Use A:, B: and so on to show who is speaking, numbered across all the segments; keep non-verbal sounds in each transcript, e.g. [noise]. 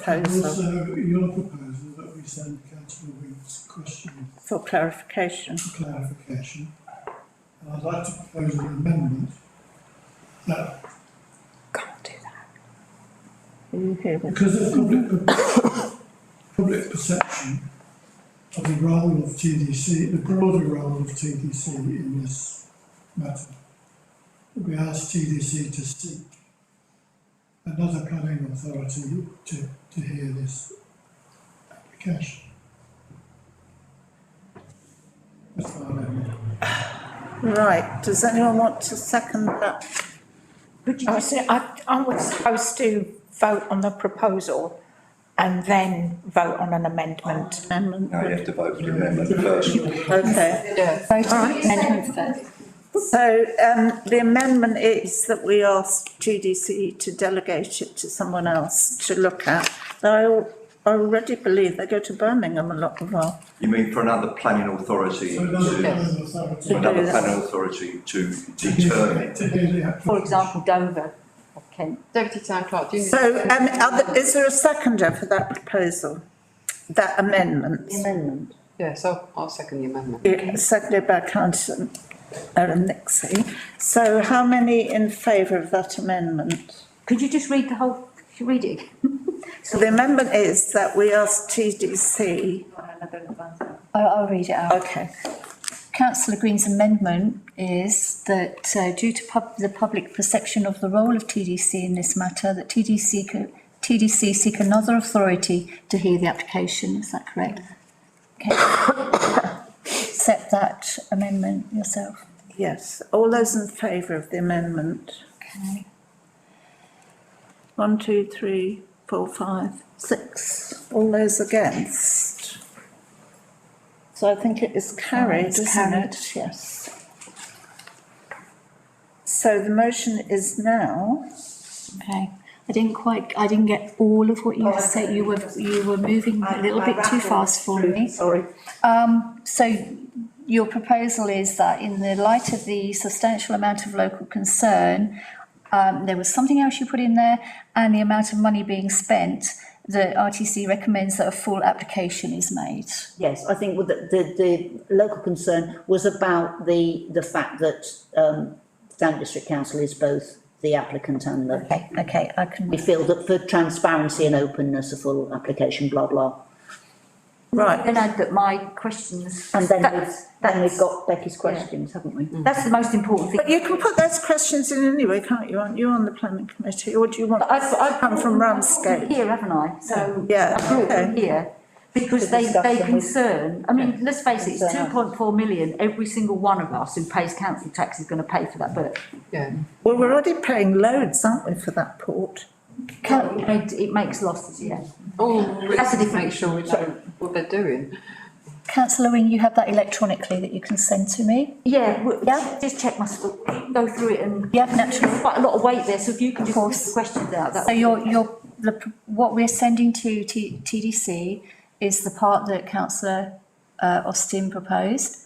A: proposal
B: Also, uh, your proposal that we send councillor Wink's question
A: for clarification.
B: for clarification. And I'd like to propose an amendment that
A: Can't do that. Are you hearing?
B: because of public, per- public perception of the role of TDC, the broader role of TDC in this matter, we ask TDC to seek another planning authority to, to hear this application. That's my amendment.
A: Right, does anyone want to second that?
C: Could you just say, I, I was supposed to vote on the proposal and then vote on an amendment.
A: Oh, Amendment.
D: Now you have to vote for the amendment first.
A: Okay, so, um, the amendment is that we ask GDC to delegate it to someone else to look at. Though I al- already believe they go to Birmingham a lot of our,
D: You mean for another planning authority
B: So another
D: to,
B: planning authority.
D: for another planning authority to
B: to hear-
D: determine?
B: To hear the application.
E: For example, Dover or Kent.
F: Deputy Town Clerk, do you?
A: so, um, are there- is there a seconder for that proposal? That amendment?
E: Amendment.
F: Yes, I'll, I'll second the amendment.
A: Yeah, Seconded by councillor Erin Nixie. So how many in favour of that amendment?
E: Could you just read the whole, could you read it? again?
A: So the amendment is that we ask TDC,
G: I- I'll read it out.
A: okay,
G: Councillor Green's amendment is that uh, due to pub, the public perception of the role of TDC in this matter, that TDC, co- TDC seek another authority to hear the application, is that correct? Okay. Accept that amendment yourself.
A: yes. All those in favour of the amendment?
G: Okay.
A: One, two, three, four, five, six. All those against? So I think it is carried,
G: It's
A: isn't
G: carried.
A: it? Yes. So the motion is now.
G: Okay, I didn't quite, I didn't get all of what you said, you were, you were moving a little bit too fast for me. Sorry. Um, so your proposal is that in the light of the substantial amount of local concern, um, there was something else you put in there, and the amount of money being spent, the RTC recommends that a full application is made.
H: Yes, I think with the, the, the local concern was about the, the fact that, um, Stanley District Council is both the applicant and the.
G: Okay, okay, I can.
H: We feel that for transparency and openness, a full application, blah, blah.
A: Right,
E: Then I've got my questions.
H: And then we've,
E: That's,
H: then we've got Becky's questions, haven't we?
E: that's the most important thing.
A: but you can put those questions in anyway, can't you? Aren't you on the planning committee or do you want?
E: But I've, I've
A: Come from Ramsgate.
E: Here, haven't I? So.
A: Yeah,
E: I brought them
A: okay.
E: here because they, they concern, I mean, let's face it, it's two
H: Concern us.
E: point four million. Every single one of us who pays council tax is going to pay for that book.
F: Yeah,
A: Well, we're already paying loads, aren't we, for that port?
E: It, it makes losses, yeah.
F: all Oh, we
E: That's a
F: have to
E: different-
F: make sure we know what they're doing.
G: Councillor Wing, you have that electronically that you can send to me?
E: Yeah, w-
G: Yeah.
E: just check my, sc- go through it and.
G: Yeah, naturally.
E: Quite a lot of weight there, so if you can
G: Of
E: just
G: course.
E: put the questions out, that.
G: So your, your, the, p- what we're sending to T, TDC is the part that councillor, uh, Austin proposed,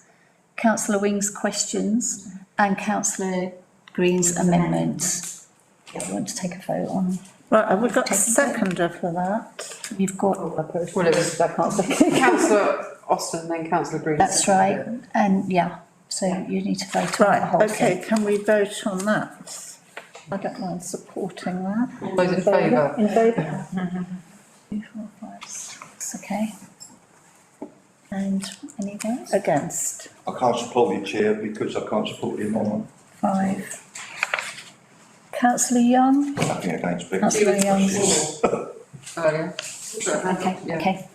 G: councillor Wing's questions and councillor Green's amendment. Yeah, we want to take a vote on,
A: Right, have we got a
G: Taking it.
A: seconder for that?
G: you've got,
F: Well, it was [laughs] councillor Austin, then councillor Green.
G: that's right, and yeah, so you need to vote on the
A: Right,
G: whole
A: okay,
G: thing.
A: can we vote on that? I don't mind supporting that.
F: All those in favour?
A: In favour?
G: Two, four, five, six, okay. And any votes?
A: Against?
D: I can't support the chair because I can't support the amendment.
G: Five. Councillor Young,
D: Nothing against Becky.
G: councillor Young.
F: Earlier.
G: Okay,
F: Yeah.
G: okay,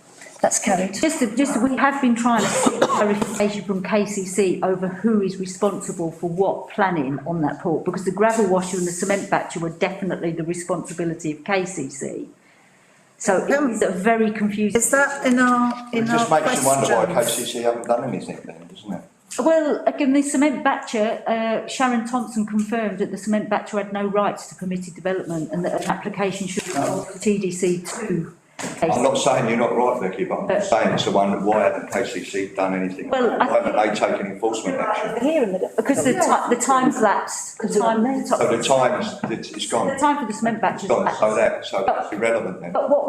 G: that's carried.
E: Just, to- just, we have been trying to get clarification from KCC over who is responsible for what planning on that port, because the gravel washer and the cement batcher were definitely the responsibility of KCC. So it
G: Um,
E: is a very confusing.
A: Is that in our,
D: It
A: in our
D: just makes you wonder why
A: questions?
D: KCC haven't done anything then, doesn't it?
E: Well, again, the cement batcher, uh, Sharon Thompson confirmed that the cement batcher had no rights to permitted development and that an application should be filed for TDC two.
D: I'm not saying you're not right, Becky, but I'm saying it's the one that why haven't KCC done anything?
E: Well, I
D: Why haven't they taken enforcement action?
E: Because the ti- the time's lapsed, the time, the
D: So
E: ti-
D: the time's, it's it's
E: the
D: gone,
E: time for the cement batchers.
D: It's gone, so that, so that's irrelevant then.
E: But what